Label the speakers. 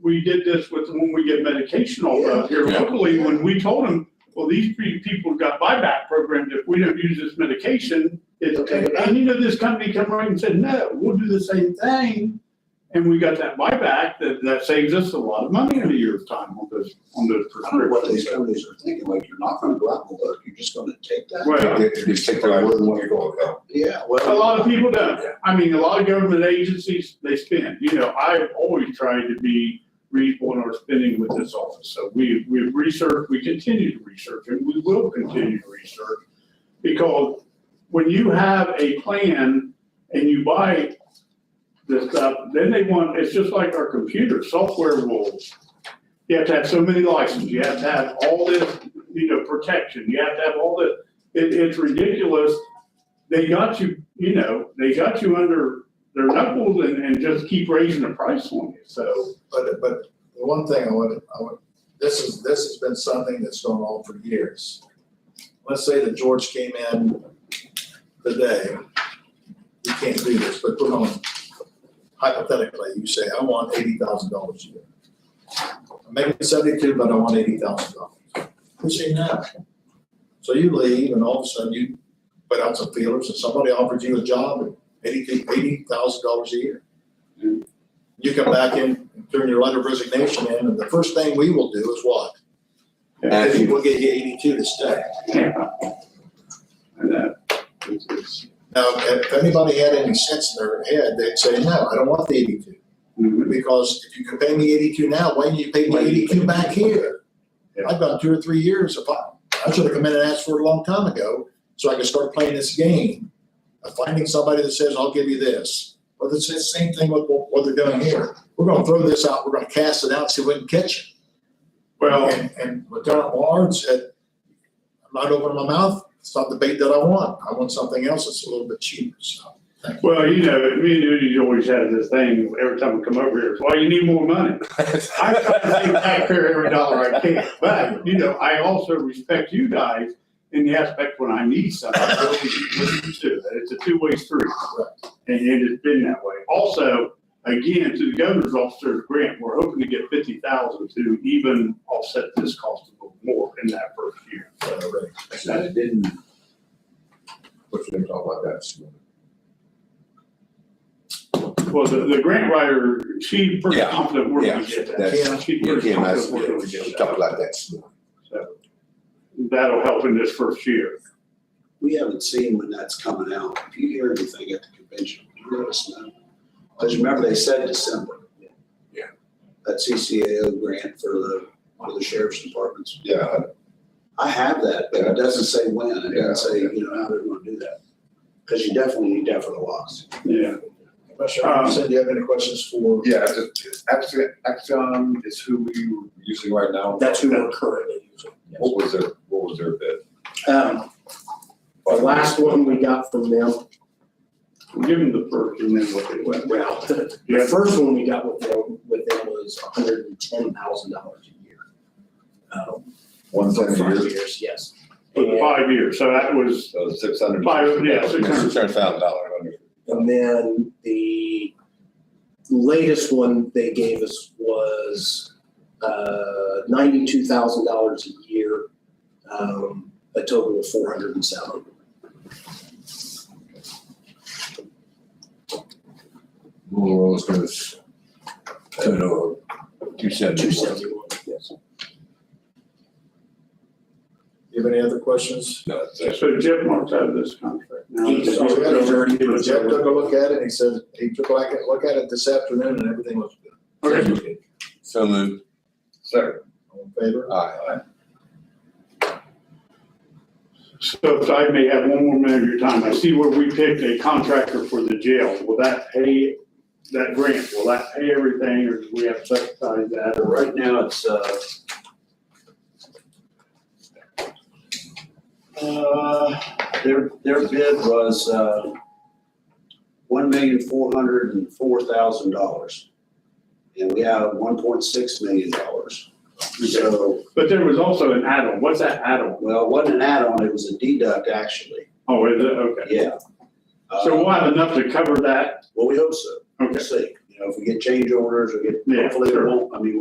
Speaker 1: we did this with, when we get medication all out here
Speaker 2: Yeah.
Speaker 1: locally, when we told them, well, these three people got buyback programs, if we don't use this medication, it's,
Speaker 3: Okay.
Speaker 1: and you know, this company come right and said, no, we'll do the same thing. And we got that buyback, that, that saves us a lot of money in a year's time on those, on those
Speaker 3: I don't know what these
Speaker 1: prescriptions.
Speaker 3: companies are thinking, like, you're not gonna go out and look, you're just gonna take that?
Speaker 1: Well,
Speaker 2: They- they Just take the word when you go, yeah.
Speaker 3: Yeah,
Speaker 1: a
Speaker 3: well.
Speaker 1: lot of people don't, I mean, a lot of government agencies, they spend, you know, I've always tried to be reasonable in our spending with this office, so we, we've researched, we continue to research, and we will continue to research. Because when you have a plan and you buy this stuff, then they want, it's just like our computer, software will, you have to have so many licenses, you have to have all this, you know, protection, you have to have all this. It, it's ridiculous they got you, you know, they got you under their knuckles and, and just keep raising the price on you, so.
Speaker 4: But, but the one thing I would, I would, this is, this has been something that's gone on for years. Let's say that George came in today, you can't do this, but put on, hypothetically, you say, I want eighty thousand dollars a year. Maybe seventy-two, but I want eighty thousand dollars. Who's saying that? So you leave and all of a sudden you put out some feelers and somebody offered you a job at eighty, eighty thousand dollars a year you come back in, and turn your letter of resignation in, and the first thing we will do is what?
Speaker 2: Ask you.
Speaker 4: We'll get you eighty-two to stay.
Speaker 1: yeah. And that, it's, it's,
Speaker 4: Now, if anybody had any sense in their head, they'd say, no, I don't want the eighty-two. Because if you can pay me eighty-two now, why didn't you pay me eighty-two back here? I've done two or three years of, I should have come in and asked for it a long time ago, so I could start playing this game. of Finding somebody that says, I'll give you this. Well, it's the same thing with what what they're doing here. We're gonna throw this out, we're gonna cast it out, see if we can catch it.
Speaker 1: well,
Speaker 4: And, and Lieutenant Warren said, I'm not opening my mouth, it's not the bait that I want, I want something else that's a little bit cheaper, so.
Speaker 1: well, you know, me and Judy always have this thing, every time we come over here, well, you need more money. I try to save taxpayer every dollar I can, but, you know, I also respect you guys in the aspect when I need something, I really listen to it. It's a two-way street. And, and it's been that way. Also, again, to the governor's officer's grant, we're hoping to get fifty thousand to even offset this cost a little more in that first year.
Speaker 4: uh, right.
Speaker 2: And I didn't. What's going to talk about that this morning?
Speaker 1: Well, the, the grant writer, she pretty
Speaker 2: Yeah,
Speaker 1: confident we're gonna
Speaker 2: yeah,
Speaker 1: get that.
Speaker 2: that's-
Speaker 1: She's
Speaker 2: Yeah,
Speaker 1: pretty
Speaker 2: Kim, I,
Speaker 1: confident we're gonna
Speaker 2: yeah,
Speaker 1: get
Speaker 2: we
Speaker 1: that.
Speaker 2: talked about that this morning.
Speaker 1: So, That'll help in this first year.
Speaker 3: We haven't seen when that's coming out. If you hear anything at the convention, you let us know. Because remember, they said December.
Speaker 2: Yeah.
Speaker 3: That CCAO grant for the, one of the sheriff's departments.
Speaker 2: Yeah,
Speaker 3: I have that, but it doesn't say when. It
Speaker 2: Yeah.
Speaker 3: doesn't say, you know, how they're gonna do that. Because you definitely need that for the locks.
Speaker 1: Yeah.
Speaker 4: Commissioner Robinson, do you have any questions for?
Speaker 2: yeah, just, Axon, Axon is who we were using right now.
Speaker 5: That's who we're currently using.
Speaker 2: What was their, what was their bid?
Speaker 5: Um, The last one we got from them,
Speaker 1: Give them the first and then what they went.
Speaker 5: well, the
Speaker 1: Yeah.
Speaker 5: the first one we got with them, with them was hundred and ten thousand dollars a year. Um,
Speaker 2: One
Speaker 5: For
Speaker 2: seventy
Speaker 5: five
Speaker 2: years,
Speaker 5: years, yes.
Speaker 1: For the
Speaker 5: And
Speaker 1: five years, so that was,
Speaker 2: so six hundred.
Speaker 1: Five, yeah, six hundred.
Speaker 2: thousand dollars.
Speaker 5: and then the latest one they gave us was uh, ninety-two thousand dollars a year, um, a total of four hundred and seven.
Speaker 2: Rural is going to, turn over two seventy.
Speaker 5: Two seventy-one, yes.
Speaker 4: Do you have any other questions?
Speaker 2: No, it's-
Speaker 1: so Jeff marks out of this contract. Now,
Speaker 5: He's
Speaker 1: it's-
Speaker 5: already been
Speaker 4: Jeff
Speaker 5: observed.
Speaker 4: took a look at it, he said, he took a look at- look at it this afternoon and everything looks good.
Speaker 1: Okay.
Speaker 2: So moved. Second.
Speaker 4: All in favor?
Speaker 2: Aye.
Speaker 1: So if I may have one more minute of your time, I see where we picked a contractor for the jail. Will that pay, that grant, will that pay everything or do we have to subsidize that?
Speaker 3: But right now, it's, uh, uh, their, their bid was, uh, one million, four hundred and four thousand dollars. And we have one point six million dollars. So,
Speaker 1: But there was also an add-on. What's that add-on?
Speaker 3: well, it wasn't an add-on, it was a deduct, actually,
Speaker 1: Oh, is it? Okay.
Speaker 3: yeah. Uh,
Speaker 1: So we'll have enough to cover that?
Speaker 3: Well, we hope so, we'll
Speaker 1: Okay.
Speaker 3: see, you know, if we get change orders, we get,
Speaker 1: Yeah,
Speaker 3: hopefully it
Speaker 1: sure.
Speaker 3: won't, I mean,